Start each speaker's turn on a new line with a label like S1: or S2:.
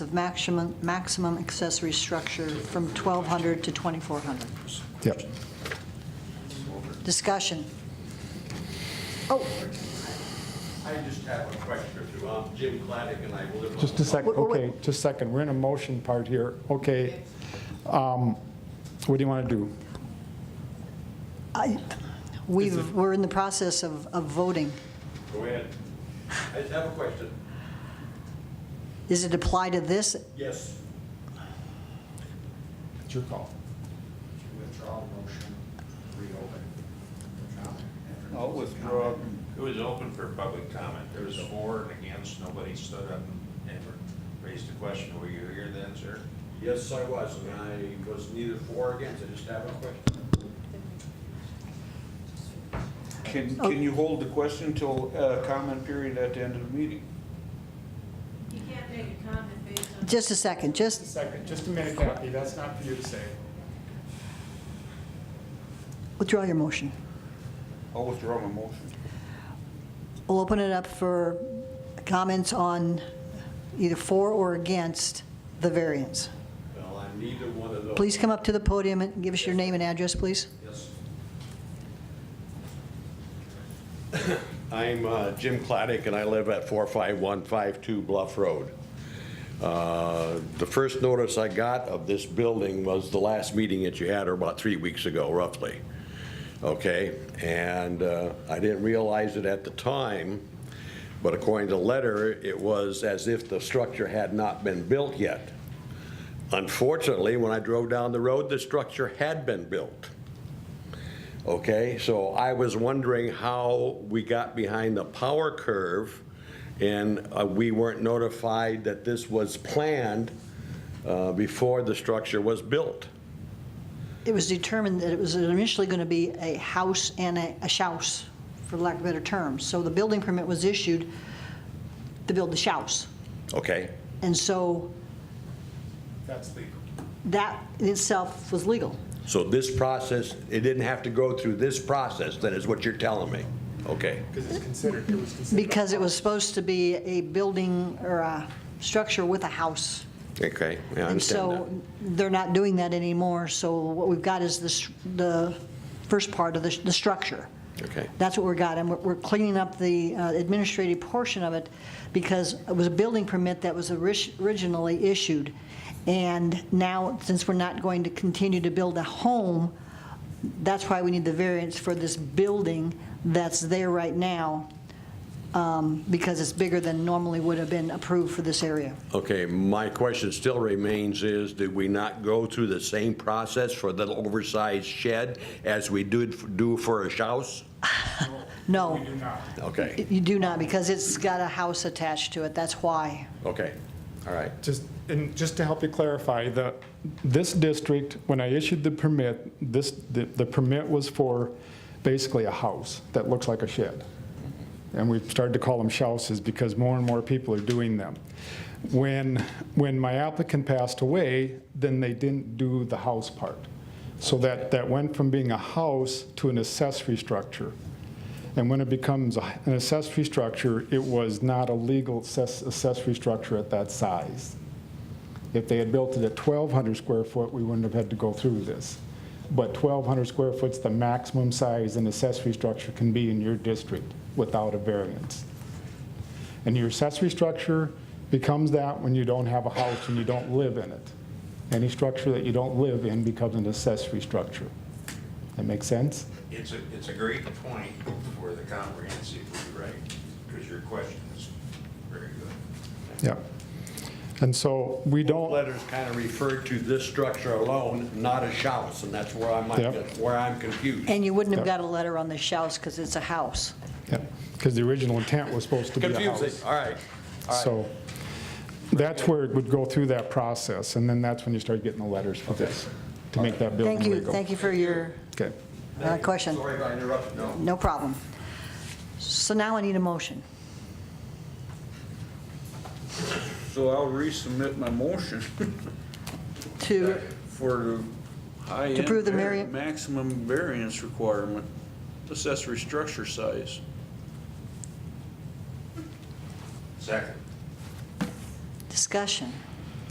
S1: of maximum, maximum accessory structure from 1,200 to 2,400.
S2: Yep.
S1: Discussion. Oh,
S3: I just have a question or two. I'm Jim Claddick, and I live on...
S2: Just a second,
S1: Wait, wait, wait.
S2: okay, just a second. We're in a motion part here. Okay. Um, What do you want to do?
S1: I, we've, we're in the process of, of voting.
S3: Go ahead. I just have a question.
S1: Does it apply to this?
S3: Yes.
S2: It's your call.
S4: Withdraw motion, reopen.
S5: I'll withdraw.
S6: It was open for public comment. There was for and against, nobody stood up and raised a question. Were you here then, sir?
S3: Yes, I was, and I was neither for or against. I just have a question.
S5: Can,
S1: Oh.
S5: can you hold the question till uh, comment period at the end of the meeting?
S7: You can't make a comment based on.
S1: Just a second, just,
S2: Second, just a minute, Kathy, that's not for you to say.
S1: withdraw your motion.
S5: I'll withdraw my motion.
S1: We'll open it up for comments on either for or against the variance.
S3: Well, I'm neither one of those.
S1: Please come up to the podium and give us your name and address, please.
S3: Yes. I'm uh, Jim Claddick, and I live at 45152 Bluff Road. Uh, The first notice I got of this building was the last meeting that you had, or about three weeks ago roughly, okay? And uh, I didn't realize it at the time, but according to the letter, it was as if the structure had not been built yet. Unfortunately, when I drove down the road, the structure had been built. Okay, so I was wondering how we got behind the power curve and uh, we weren't notified that this was planned uh, before the structure was built.
S1: It was determined that it was initially going to be a house and a, a shouse, for lack of better terms. So the building permit was issued to build the shouse.
S3: Okay,
S1: And so
S2: That's legal.
S1: that in itself was legal.
S3: so this process, it didn't have to go through this process, then is what you're telling me? Okay,
S2: Because it's considered, it was considered.
S1: Because it was supposed to be a building or a structure with a house.
S3: okay, I
S1: And
S3: understand
S1: so
S3: that.
S1: they're not doing that anymore, so what we've got is this, the first part of the, the structure.
S3: Okay.
S1: That's what we got, and we're- we're cleaning up the uh, administrative portion of it, because it was a building permit that was orig- originally issued. And now, since we're not going to continue to build a home, that's why we need the variance for this building that's there right now, um, because it's bigger than normally would have been approved for this area.
S3: Okay, my question still remains is, did we not go through the same process for the oversized shed as we did, do for a house?
S1: No.
S3: Okay,
S1: You do not, because it's got a house attached to it, that's why.
S3: okay, all right.
S2: Just, and just to help you clarify, the, this district, when I issued the permit, this, the the permit was for basically a house that looks like a shed. And we've started to call them shouses because more and more people are doing them. When, when my applicant passed away, then they didn't do the house part. So that, that went from being a house to an accessory structure. And when it becomes a- an accessory structure, it was not a legal access- accessory structure at that size. If they had built it at 1,200 square foot, we wouldn't have had to go through this. But 1,200 square foot's the maximum size an accessory structure can be in your district without a variance. And your accessory structure becomes that when you don't have a house and you don't live in it. Any structure that you don't live in becomes an accessory structure. That make sense?
S6: It's a, it's a great point for the comprehensive rewrite, because your question is very good.
S2: Yep. And so we don't.
S3: Letters kind of referred to this structure alone, not a house, and that's where I might,
S2: Yep.
S3: where I'm confused.
S1: And you wouldn't have
S2: Yeah.
S1: got a letter on the shouse, because it's a house.
S2: Yeah, because the original intent was supposed to be a
S3: Confusing,
S2: house.
S3: all right, all right.
S2: So that's where it would go through that process, and then that's when you start getting the letters for this, to make that building
S1: Thank you,
S2: legal.
S1: thank you for your
S2: Okay.
S1: uh, question.
S3: Sorry if I interrupted, no.
S1: No problem. So now I need a motion.
S5: So I'll resubmit my motion
S1: To,
S5: for the high end.
S1: To prove the
S5: var-
S1: variant-
S5: Maximum variance requirement, accessory structure size.
S6: Second.
S1: discussion.